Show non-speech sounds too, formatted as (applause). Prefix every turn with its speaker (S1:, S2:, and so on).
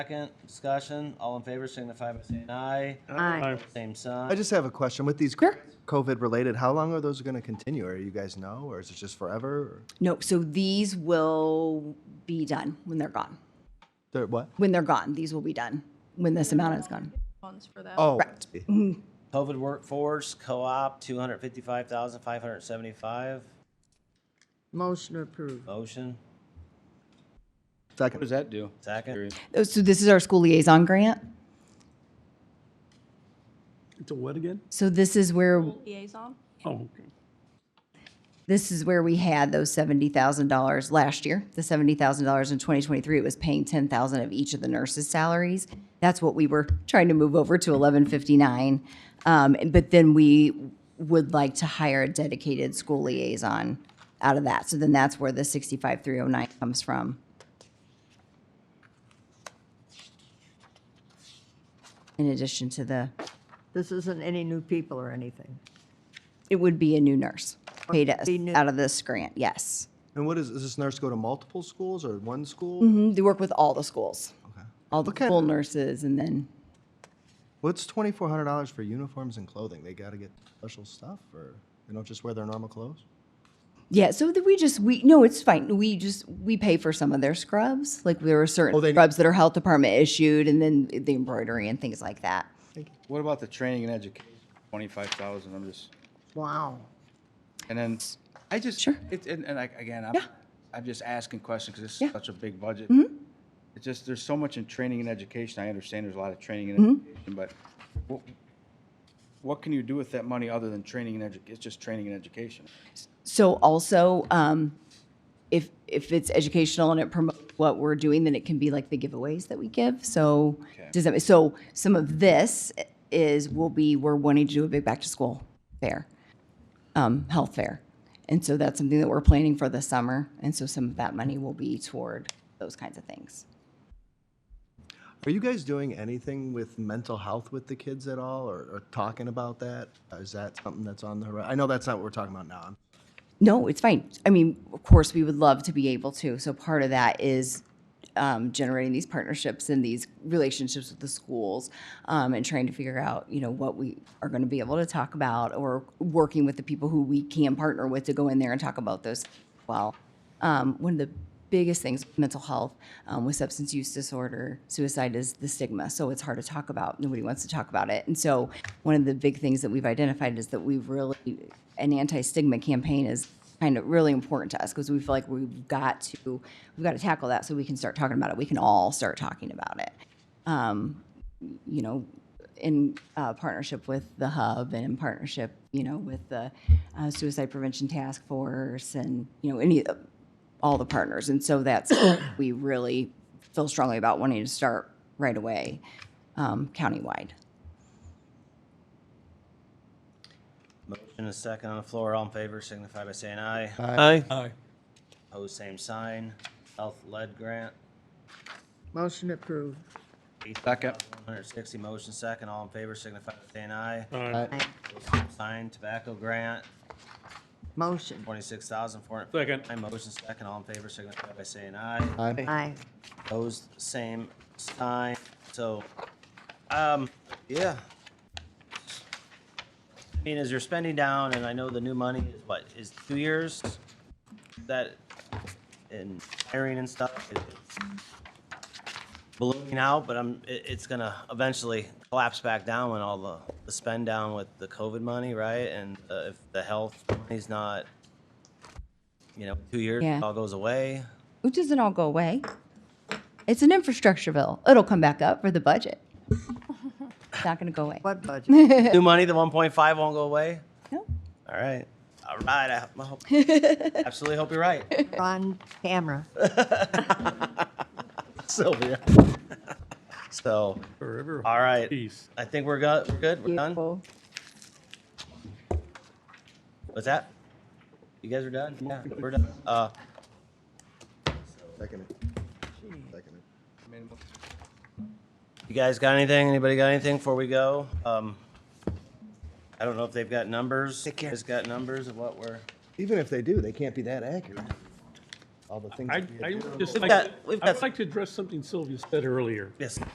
S1: Second, discussion, all in favor signify by saying aye.
S2: Aye.
S1: Same sign.
S3: I just have a question. With these COVID-related, how long are those going to continue? Or you guys know, or is it just forever? or-
S2: No, so these will be done when they're gone.
S3: They're what?
S2: When they're gone, these will be done, when this amount is gone.
S4: funds for that.
S3: Oh,
S1: COVID workforce, co-op, two hundred fifty-five thousand, five hundred seventy-five.
S5: Motion approved.
S1: Motion,
S6: What
S3: second.
S6: does that do?
S1: second.
S6: Curious.
S2: Oh, So this is our school liaison grant.
S7: It's a what again?
S2: So this is where,
S4: Liaison,
S7: Oh, okay.
S2: this is where we had those seventy thousand dollars last year. The seventy thousand dollars in twenty twenty-three, it was paying ten thousand of each of the nurses' salaries. That's what we were trying to move over to eleven fifty-nine. Um, and- but then we would like to hire a dedicated school liaison out of that. So then that's where the sixty-five three oh nine comes from. In addition to the,
S5: This isn't any new people or anything.
S2: it would be a new nurse paid us
S5: Be new.
S2: out of this grant, yes.
S3: And what is, does this nurse go to multiple schools or one school?
S2: Mhm, They work with all the schools, all the
S3: Okay.
S2: school nurses, and then
S3: What's twenty-four hundred dollars for uniforms and clothing? They gotta get special stuff or they don't just wear their normal clothes?
S2: yeah. So that we just we no, it's fine. We just we pay for some of their scrubs. Like there are certain
S3: Oh, they-
S2: scrubs that are health department issued, and then the embroidery and things like that.
S6: What about the training and education? Twenty-five thousand, I'm just,
S5: Wow.
S6: and then, I just,
S2: Sure.
S6: it's, and, and like, again, I'm, I'm just asking questions because this
S2: Yeah. Mm-hmm.
S6: is such a big budget. It's just, there's so much in training and education. I understand there's a lot of training and
S2: Mm-hmm.
S6: education, but what, what can you do with that money other than training and edu, it's just training and education?
S2: So also, um, if if it's educational and it promotes what we're doing, then it can be like the giveaways that we give. So does that so some of this is will be we're wanting to do a big back to school fair, um, health fair, and so that's something that we're planning for this summer. And so some of that money will be toward those kinds of things.
S3: Are you guys doing anything with mental health with the kids at all or, or talking about that? Is that something that's on the horizon? I know that's not what we're talking about now.
S2: No, it's fine. I mean, of course, we would love to be able to. So part of that is um, generating these partnerships and these relationships with the schools um, and trying to figure out, you know, what we are going to be able to talk about or working with the people who we can partner with to go in there and talk about those. Well, um, one of the biggest things with mental health um, with substance use disorder suicide is the stigma so it's hard to talk about nobody wants to talk about it and so one of the big things that we've identified is that we've really an anti-stigma campaign is kind of really important to us because we feel like we've got to we've got to tackle that so we can start talking about it we can all start talking about it you know, in uh, partnership with the hub and in partnership, you know, with the uh, suicide prevention task force and you know any all the partners. And so that's we really feel strongly about wanting to start right away, um, countywide.
S1: Motion is second on the floor, all in favor signify by saying aye.
S8: Aye. Aye.
S1: Opposed, same sign. Health lead grant,
S5: Motion approved.
S6: Second,
S1: one hundred sixty, motion second, all in favor signify by saying aye.
S8: Aye.
S1: Opposed, same Sign tobacco grant,
S5: Motion.
S1: twenty-six thousand four hundred.
S8: Second.
S1: motion second, all in favor signify by saying aye.
S3: Aye.
S5: Aye.
S1: Opposed, same sign. So, um, yeah. I mean, as you're spending down, and I know the new money is what, is two years? That, in hiring and stuff, it- it's ballooning out, but I'm, it, it's gonna eventually collapse back down when all the, the spend down with the COVID money, right? And, uh, if the health money's not, you know, two years,
S2: Yeah.
S1: it all goes away.
S2: It doesn't all go away. It's an infrastructure bill. It'll come back up for the budget. It's not going to go away.
S5: What (laughs) budget?
S1: New money, the one point five won't go away?
S2: No.
S1: All right. All right. I hope- I hope, (laughs) absolutely hope you're right,
S5: On camera.
S1: Sylvia. So,
S7: Forever.
S1: all right.
S7: Peace.
S1: I think we're go- we're good. We're done.
S2: Beautiful.
S1: What's that? You guys are done? Yeah, we're done. Uh,
S3: Second. Second.
S1: you guys got anything? Anybody got anything before we go? Um, I don't know if they've got numbers. Take care. Has got numbers of what we're,
S3: Even if they do, they can't be that accurate. all the things.
S7: I,
S3: that we
S7: I
S3: do.
S7: would just
S1: We've
S7: like,
S1: got-
S7: to-
S1: we've
S7: I
S1: got-
S7: would like to address something Sylvia said earlier.
S1: Yes.